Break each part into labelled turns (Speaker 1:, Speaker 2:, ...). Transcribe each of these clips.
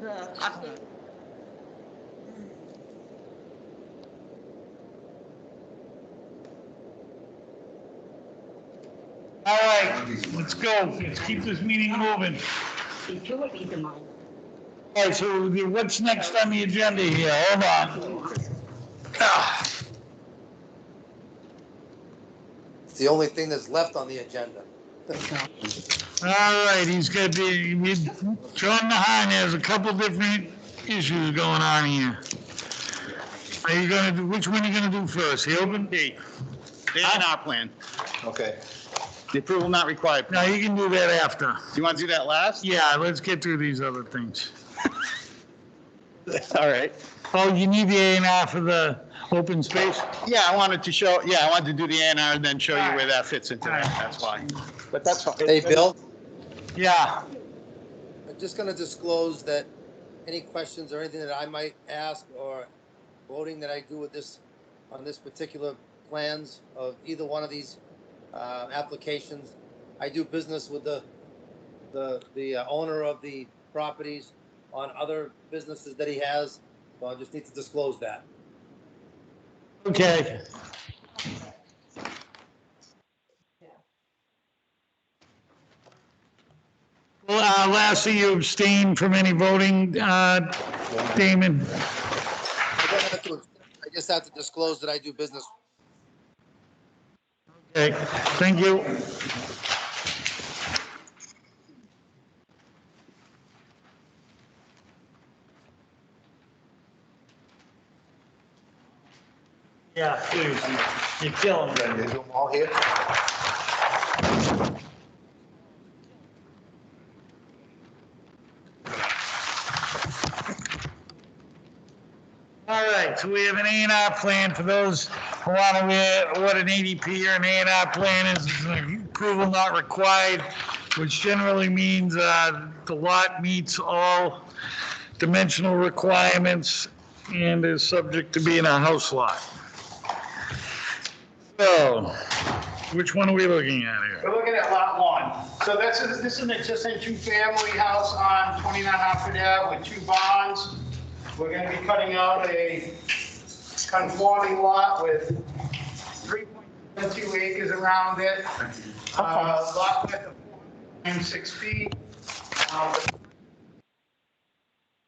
Speaker 1: the update.
Speaker 2: All right, let's go. Let's keep this meeting moving.
Speaker 1: See, two would be the mine.
Speaker 2: All right, so what's next on the agenda here? Hold on. Ah.
Speaker 3: It's the only thing that's left on the agenda.
Speaker 2: All right, he's got the, we- John Mahan has a couple different issues going on here. Are you gonna do, which one are you gonna do first, the open?
Speaker 4: D, the A and R plan,
Speaker 5: Okay.
Speaker 4: the approval not required.
Speaker 2: No, you can do that after.
Speaker 4: You want to do that last?
Speaker 2: Yeah, let's get through these other things.
Speaker 4: All right.
Speaker 2: Oh, you need the A and R for the open space?
Speaker 4: Yeah, I wanted to show, yeah, I wanted to do the A and R and then show you where that fits into that,
Speaker 2: All right.
Speaker 4: that's why. But that's fine.
Speaker 3: Hey, Bill,
Speaker 2: Yeah.
Speaker 3: I'm just gonna disclose that any questions or anything that I might ask or voting that I do with this, on this particular plans of either one of these, uh, applications, I do business with the, the, the uh, owner of the properties on other businesses that he has, so I just need to disclose that.
Speaker 2: Okay. Well, uh, lastly, you abstain from any voting, uh, Damon?
Speaker 3: I don't have to- I just have to disclose that I do business
Speaker 2: Okay, thank you. Yeah, seriously, you're killing me.
Speaker 5: Is them all here?
Speaker 2: All right, so we have an A and R plan for those who want to know what an ADP or an A and R plan is. It's an Approval not required, which generally means uh, the lot meets all dimensional requirements and is subject to being a house lot. So, which one are we looking at here?
Speaker 6: We're looking at lot one. So this is, this is an existing two-family house on 29 Hartford Ave with two barns. We're gonna be cutting out a conforming lot with 3.2 acres around it. Uh, Lot width of 406 feet. Uh,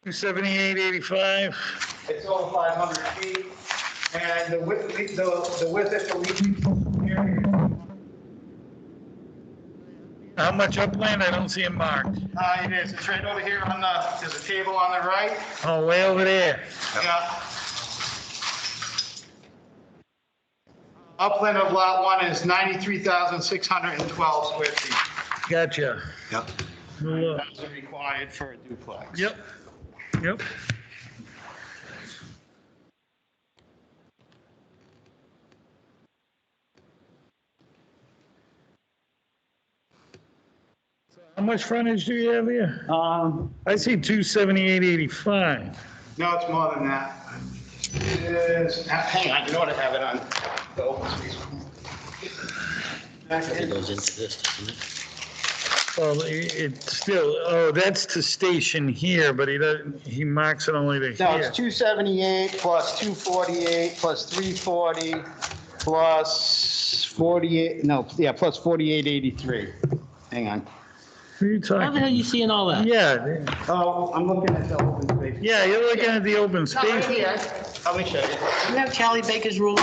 Speaker 2: 27885?
Speaker 6: It's over 500 feet. And the width, the the width at the leaching area,
Speaker 2: How much upland? I don't see it marked.
Speaker 6: uh, it is, it's right over here on the, there's a table on the right.
Speaker 2: Oh, way over there.
Speaker 6: Yeah. Upland of lot one is 93,612 square feet.
Speaker 2: Gotcha.
Speaker 5: Yep.
Speaker 2: Look.
Speaker 6: That's required for a duplex.
Speaker 2: Yep, yep. So How much frontage do you have here?
Speaker 6: Um,
Speaker 2: I see 27885.
Speaker 6: no, it's more than that. It is, hang on, you know what, I have it on the open space. Back in.
Speaker 5: goes into this,
Speaker 2: Well, i- it's still, oh, that's to station here, but he doesn't, he marks it only to
Speaker 6: No,
Speaker 2: here.
Speaker 6: it's 278 plus 248 plus 340 plus 48, no, yeah, plus 4883. Hang on.
Speaker 2: Who are you
Speaker 7: How the hell
Speaker 2: talking?
Speaker 7: you seeing all that?
Speaker 2: Yeah, th-
Speaker 6: Oh, I'm looking at the open space.
Speaker 2: yeah, you're looking at the open
Speaker 1: Not right
Speaker 2: space.
Speaker 1: here.
Speaker 6: Let me show you.
Speaker 7: You have Charlie Baker's rule?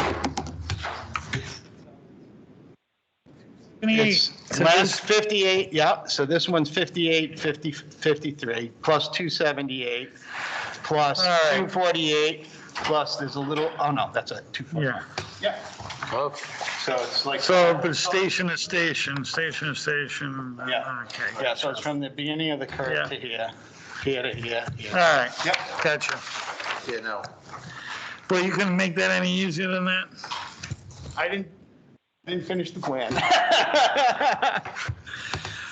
Speaker 2: 28.
Speaker 4: It's
Speaker 2: So
Speaker 4: less 58, yeah, so this one's 58, 50, 53, plus 278, plus
Speaker 2: All right.
Speaker 4: 248, plus there's a little, oh no, that's a
Speaker 2: this-
Speaker 4: 240.
Speaker 2: Yeah.
Speaker 6: Yeah. So it's like,
Speaker 2: So, but station to station, station to station,
Speaker 4: Yeah.
Speaker 2: uh, okay.
Speaker 4: Yeah, so it's from the beginning of the curve to
Speaker 2: Yeah.
Speaker 4: here, here to here.
Speaker 2: All right,
Speaker 6: Yep.
Speaker 2: gotcha.
Speaker 5: Yeah, no.
Speaker 2: Well, you couldn't make that any easier than that?
Speaker 6: I didn't, I didn't finish the plan.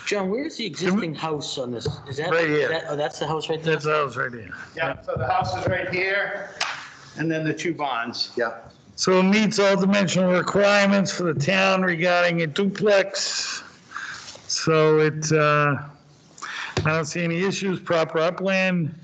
Speaker 7: John, where's the existing house on this? Is that?
Speaker 2: Right here.
Speaker 7: that- Oh, that's the house right there?
Speaker 2: That's ours right here.
Speaker 6: Yeah, so the house is right here, and then the two bonds.
Speaker 5: Yeah.
Speaker 2: So it meets all dimensional requirements for the town regarding a duplex. So it, uh, I don't see any issues, proper upland.